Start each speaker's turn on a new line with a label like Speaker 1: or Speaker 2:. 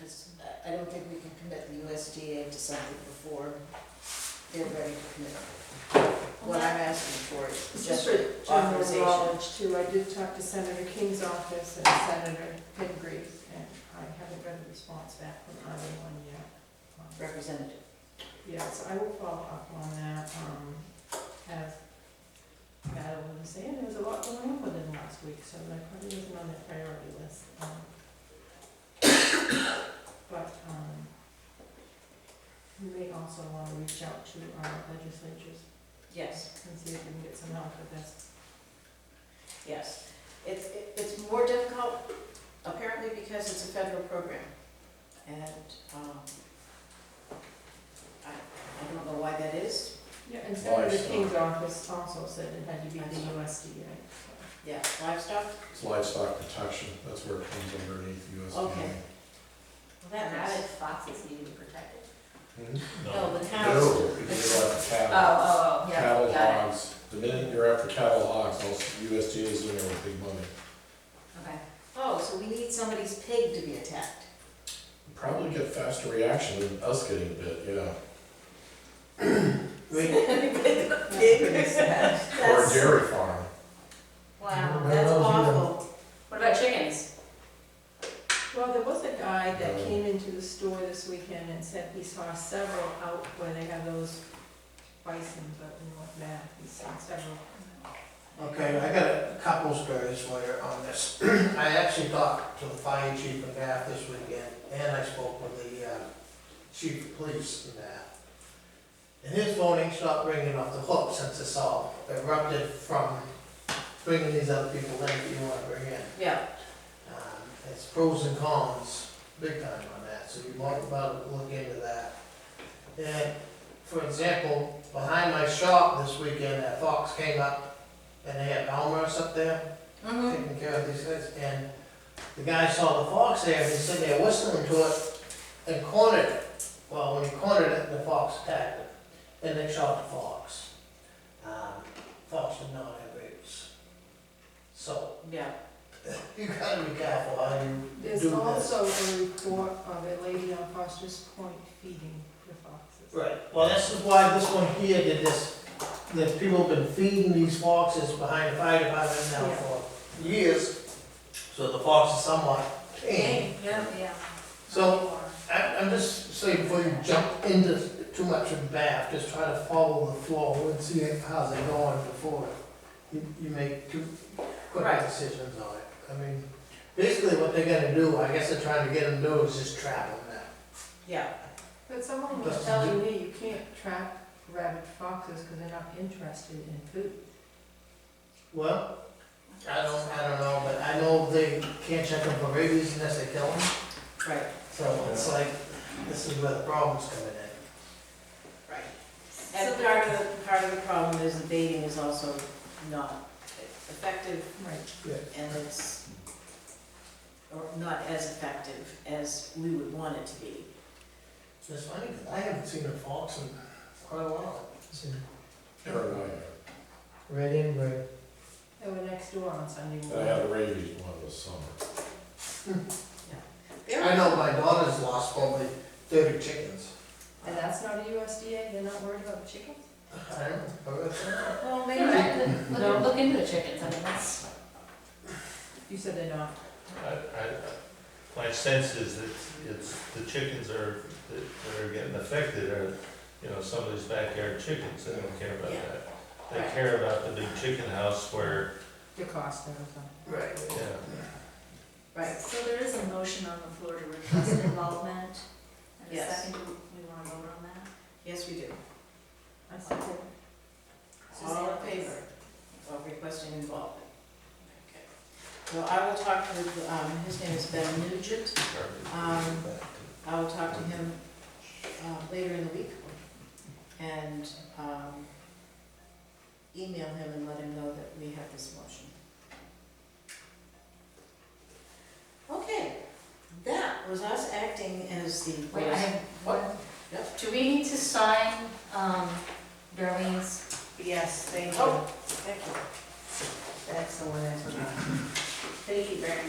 Speaker 1: I don't think we can commit the USDA to something before they're ready to commit. What I'm asking for is
Speaker 2: Just
Speaker 1: just
Speaker 2: for general
Speaker 1: authorization.
Speaker 2: knowledge too, I did talk to Senator King's office and Senator Pingree, and I haven't got a response back from either one yet. Um,
Speaker 1: representative.
Speaker 2: Yes, I will follow up on that, um, as Madeline was saying, there was a lot going on within last week, so that probably wasn't on their priority list. um. But, um, we may also wanna reach out to our legislatures
Speaker 1: Yes,
Speaker 2: and see if we can get some help with this.
Speaker 1: yes. It's, it- it's more difficult apparently because it's a federal program. And um, I, I don't know why that is.
Speaker 2: Yeah, and Senator
Speaker 3: Livestock.
Speaker 2: King's office also said it had to be the USDA, so.
Speaker 1: Yeah, livestock,
Speaker 3: It's livestock protection, that's where it comes underneath the USDA.
Speaker 1: Okay.
Speaker 4: That rabid fox is needed to protect it.
Speaker 3: Hmm?
Speaker 1: no, the cows.
Speaker 3: No, because you're after
Speaker 4: Oh,
Speaker 5: Uh,
Speaker 3: cattle,
Speaker 4: oh, oh, yeah,
Speaker 3: cattle
Speaker 4: got it.
Speaker 3: hogs, the minute you're after cattle hogs, also USDA is in there with big money.
Speaker 4: Okay.
Speaker 1: Oh, so we need somebody's pig to be attacked.
Speaker 3: Probably get faster reaction than us getting bit, yeah,
Speaker 2: That's pretty sad.
Speaker 3: or a
Speaker 1: That's-
Speaker 3: dairy farm.
Speaker 1: Wow,
Speaker 3: Everybody
Speaker 1: that's
Speaker 3: else, you know.
Speaker 1: awful.
Speaker 4: What about chickens?
Speaker 2: Well, there was a guy that
Speaker 3: No.
Speaker 5: Um,
Speaker 2: came into the store this weekend and said he saw several out where they have those bison, but in North Mass, he's seen several.
Speaker 5: Okay, I got a couple stories later on this. I actually talked to the fire chief in Bath this weekend, and I spoke with the uh, chief of police in Bath. And his phone ain't stopped ringing off the hook since this all erupted from bringing these other people in that you want to bring in.
Speaker 1: Yeah,
Speaker 5: Um, It's pros and cons, big time on that, so you want to look into that. And, for example, behind my shop this weekend, that fox came up, and they had Almer's up there
Speaker 1: mhm.
Speaker 5: taking care of these things, and the guy saw the fox there, and he's sitting there whistling to it, and cornered it. Well, when he cornered it, the fox attacked it, and they shot the fox. Um, Fox did not have rabies. So,
Speaker 1: Yeah,
Speaker 5: you gotta be careful how you
Speaker 2: There's
Speaker 5: do this.
Speaker 2: also a report of a lady on Foster's Point feeding the foxes.
Speaker 5: Right, well, this is why this one here did this, that people have been feeding these foxes behind the fire department now
Speaker 2: Yeah.
Speaker 5: for years. So the fox is somewhat tame.
Speaker 4: Yeah, yeah.
Speaker 5: So- I, I'm just saying, before you jump into too much of Bath, just try to follow the flow and see how's it going before you, you make too quick
Speaker 1: Right.
Speaker 5: decisions on it. I mean, basically what they're gonna do, I guess they're trying to get them to do is just trap them now.
Speaker 1: yeah,
Speaker 2: But someone was
Speaker 5: That's-
Speaker 2: telling me you can't trap rabid foxes because they're not interested in food.
Speaker 5: Well, I don't, I don't know, but I know they can't check them for rabies unless they kill them,
Speaker 1: right,
Speaker 5: so it's like, this is where the problem's coming in.
Speaker 1: right.
Speaker 4: So
Speaker 1: And part of, the part of the problem is the baiting is also not effective
Speaker 2: Right.
Speaker 1: and it's, or not as effective as we would want it to be.
Speaker 5: It's funny, 'cause I haven't seen a fox in quite a while.
Speaker 3: Paranoia,
Speaker 5: Red and gray.
Speaker 2: They were next door on Sunday
Speaker 3: I
Speaker 2: morning.
Speaker 3: had rabies one this summer.
Speaker 5: I know my daughter's lost probably thirty chickens.
Speaker 2: And that's not a USDA, they're not worried about chickens?
Speaker 5: I don't know.
Speaker 1: Well,
Speaker 4: Maybe
Speaker 1: maybe,
Speaker 4: look, look- look into the chickens, I mean, that's,
Speaker 2: You said they're not.
Speaker 6: I, I, my sense is that it's, the chickens are, that that are getting affected are, you know, somebody's backyard chickens, they don't care about
Speaker 1: Yeah.
Speaker 6: that. They care about the big chicken house where,
Speaker 2: DeCosta or something.
Speaker 5: Right.
Speaker 6: yeah,
Speaker 1: right,
Speaker 4: so there is a motion on the floor to request involvement. And a
Speaker 1: Yes.
Speaker 4: second, do we wanna vote on that?
Speaker 1: yes, we do.
Speaker 2: I said,
Speaker 1: All in favor of requesting involvement? Okay. Well, I will talk with, um, his name is Ben Nugent.
Speaker 6: garbage.
Speaker 1: Um, I will talk to him uh, later in the week and um, email him and let him know that we have this motion. Okay, that was us acting as the.
Speaker 4: Wait, I have one,
Speaker 1: Yep.
Speaker 4: do we need to sign, um, Darlene's?
Speaker 1: Yes, thank you.
Speaker 4: Oh.
Speaker 1: Thank you. Excellent. Thank you very much.